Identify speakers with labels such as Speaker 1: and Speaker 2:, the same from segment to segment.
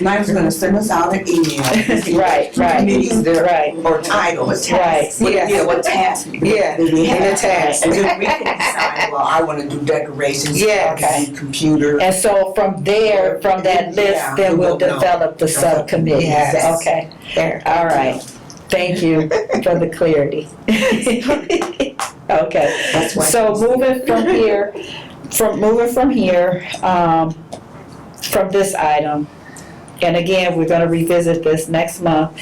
Speaker 1: Mike's gonna send us out an email.
Speaker 2: Right, right,
Speaker 1: Committees
Speaker 2: right,
Speaker 1: Or title.
Speaker 2: right.
Speaker 1: What- Yeah, what task?
Speaker 2: Yeah,
Speaker 1: that we
Speaker 2: and the
Speaker 1: have.
Speaker 2: task.
Speaker 1: And then we can decide, well, I wanna do decorations. I
Speaker 2: Yes.
Speaker 1: wanna do Computer.
Speaker 2: And so from there, from that
Speaker 1: Yeah,
Speaker 2: list, then we'll
Speaker 1: we'll know.
Speaker 2: develop the subcommittee.
Speaker 1: Yes.
Speaker 2: Okay, all right. Thank you for the clarity. Okay,
Speaker 1: That's why.
Speaker 2: so moving from here, from, moving from here, um, from this item, and again, we're gonna revisit this next month,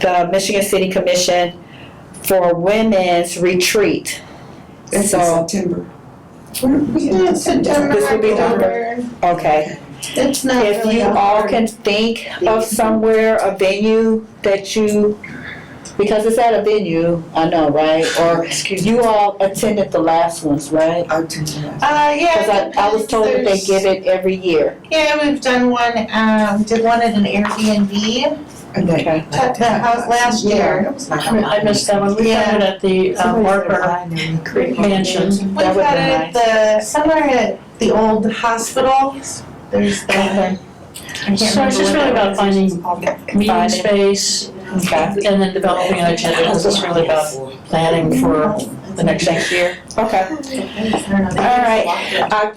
Speaker 2: the Michigan City Commission for Women's Retreat.
Speaker 1: That's in
Speaker 2: so-
Speaker 1: September.
Speaker 2: This will be
Speaker 3: September,
Speaker 2: Okay,
Speaker 3: it's not
Speaker 2: If
Speaker 3: really
Speaker 2: you
Speaker 3: a
Speaker 2: all
Speaker 3: hard-
Speaker 2: can think of somewhere, a venue that you, because it's at a venue, I know, right? Or you all attended the last ones, right?
Speaker 1: I'll tell you that.
Speaker 3: Uh,
Speaker 2: Because
Speaker 3: yeah.
Speaker 2: I, I was told that they
Speaker 3: there's-
Speaker 2: give it every year.
Speaker 3: Yeah, we've done one, um, did one at an Airbnb,
Speaker 1: And then-
Speaker 2: Okay.
Speaker 3: at the house last
Speaker 1: Yeah,
Speaker 3: year.
Speaker 1: that was like.
Speaker 4: I missed that one, we had it at the uh, Barker Mansion.
Speaker 3: We've
Speaker 2: That
Speaker 3: had
Speaker 2: would've
Speaker 3: it
Speaker 2: been
Speaker 3: at the, somewhere at the old hospital, there's the.
Speaker 4: So it's just really about finding meeting
Speaker 2: Finding-
Speaker 4: space
Speaker 2: Okay,
Speaker 4: and then developing an agenda, this is really about planning for the next thing.
Speaker 2: year. Okay.
Speaker 3: All
Speaker 2: right. Oc-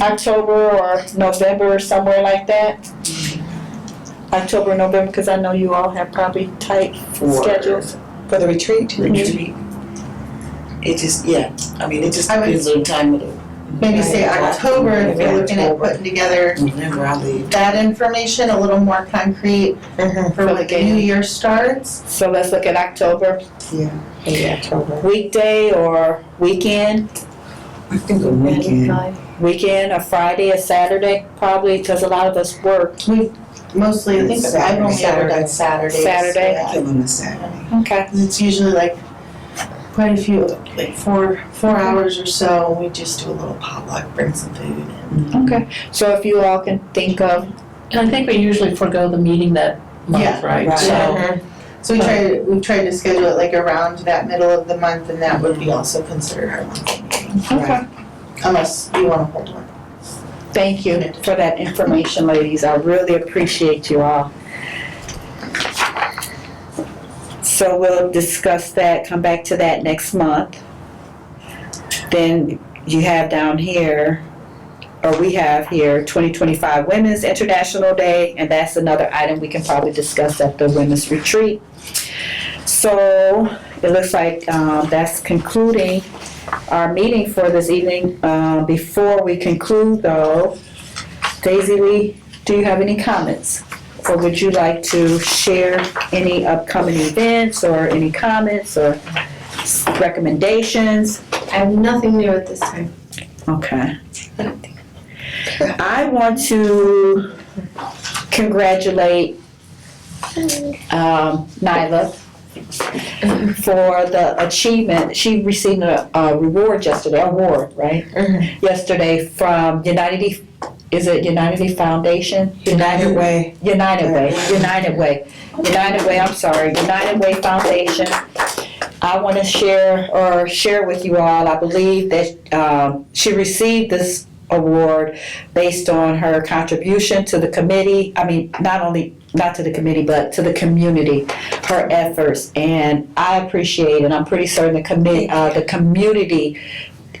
Speaker 2: October or November, or somewhere like that? October, November, because I know you all have probably tight schedules.
Speaker 5: For the retreat?
Speaker 6: retreat. It just, yeah, I mean, it just
Speaker 3: I would-
Speaker 6: depends on time of the,
Speaker 3: Maybe say October, if we're looking at putting together
Speaker 6: whenever I leave.
Speaker 3: that information, a little more concrete for
Speaker 2: Mm-hmm. the
Speaker 3: like
Speaker 2: game.
Speaker 3: New Year starts.
Speaker 2: So let's look at October,
Speaker 5: Yeah, October.
Speaker 2: weekday or weekend?
Speaker 6: I think a weekend.
Speaker 2: weekend, a Friday, a Saturday, probably, because a lot of us work.
Speaker 3: Mostly, I think I've only ever done Saturdays.
Speaker 2: Saturday.
Speaker 3: Yeah.
Speaker 6: I give them a Saturday.
Speaker 2: Okay.
Speaker 3: It's usually like quite a few, like four, four hours or so, we just do a little potluck, bring some food.
Speaker 2: Okay. So if you all can think of,
Speaker 4: And I think we usually forego the meeting that month,
Speaker 3: Yeah,
Speaker 4: right?
Speaker 2: right.
Speaker 4: So,
Speaker 2: Mm-hmm.
Speaker 3: So, so we try, to- we tried to schedule it like around that middle of the month and that would be also considered our monthly meeting.
Speaker 2: Okay.
Speaker 3: Unless you wanna hold one.
Speaker 2: thank you for that information, ladies. I really appreciate you all. So we'll discuss that, come back to that next month. Then you have down here, or we have here, 2025 Women's International Day, and that's another item we can probably discuss at the women's retreat. So it looks like um, that's concluding our meeting for this evening. Uh, Before we conclude though, Daisy Lee, do you have any comments? Or would you like to share any upcoming events or any comments or s- recommendations?
Speaker 7: I have nothing new at this time.
Speaker 2: Okay. I want to congratulate um, Nyla for the achievement. She received a, a reward yesterday, award, right? Yesterday from United, E- is it United E Foundation?
Speaker 5: United Way.
Speaker 2: United Way, United Way, United Way, I'm sorry, United Way Foundation. I want to share or share with you all, I believe that um, she received this award based on her contribution to the committee, I mean, not only, not to the committee, but to the community, her efforts. And I appreciate, and I'm pretty certain the commit, uh, the community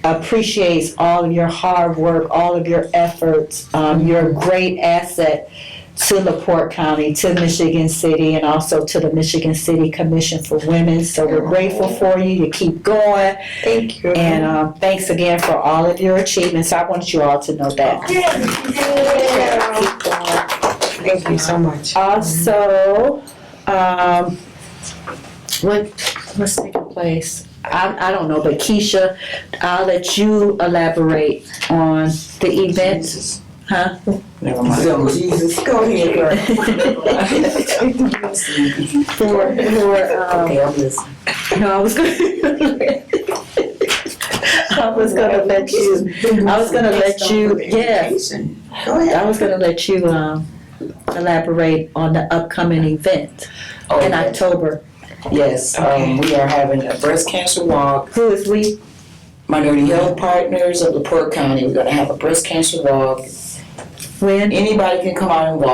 Speaker 2: appreciates all of your hard work, all of your efforts. Um, you're a great asset to LaPorte County, to Michigan City, and also to the Michigan City Commission for Women. So we're grateful for you. You keep going.
Speaker 5: Thank you.
Speaker 2: And um, thanks again for all of your achievements. I want you all to know that.
Speaker 5: Thank you so much.
Speaker 2: Also, um, what, what's taking place? I, I don't know, but Keisha, I'll let you elaborate on the event. Huh?
Speaker 6: Never mind.
Speaker 1: So Jesus, go ahead, girl.
Speaker 2: For, for, um,
Speaker 6: Okay, I'm listening.
Speaker 2: no, I was gonna. I was gonna let you, I was gonna let you, yeah,
Speaker 1: Go ahead.
Speaker 2: I was gonna let you, um, elaborate on the upcoming event
Speaker 6: Oh,
Speaker 2: in October.
Speaker 6: Yes, um, we are having a breast cancer walk,
Speaker 2: Who is we?
Speaker 6: Minority Health Partners of LaPorte County. We're gonna have a breast cancer walk.
Speaker 2: When?
Speaker 6: Anybody can come out and walk.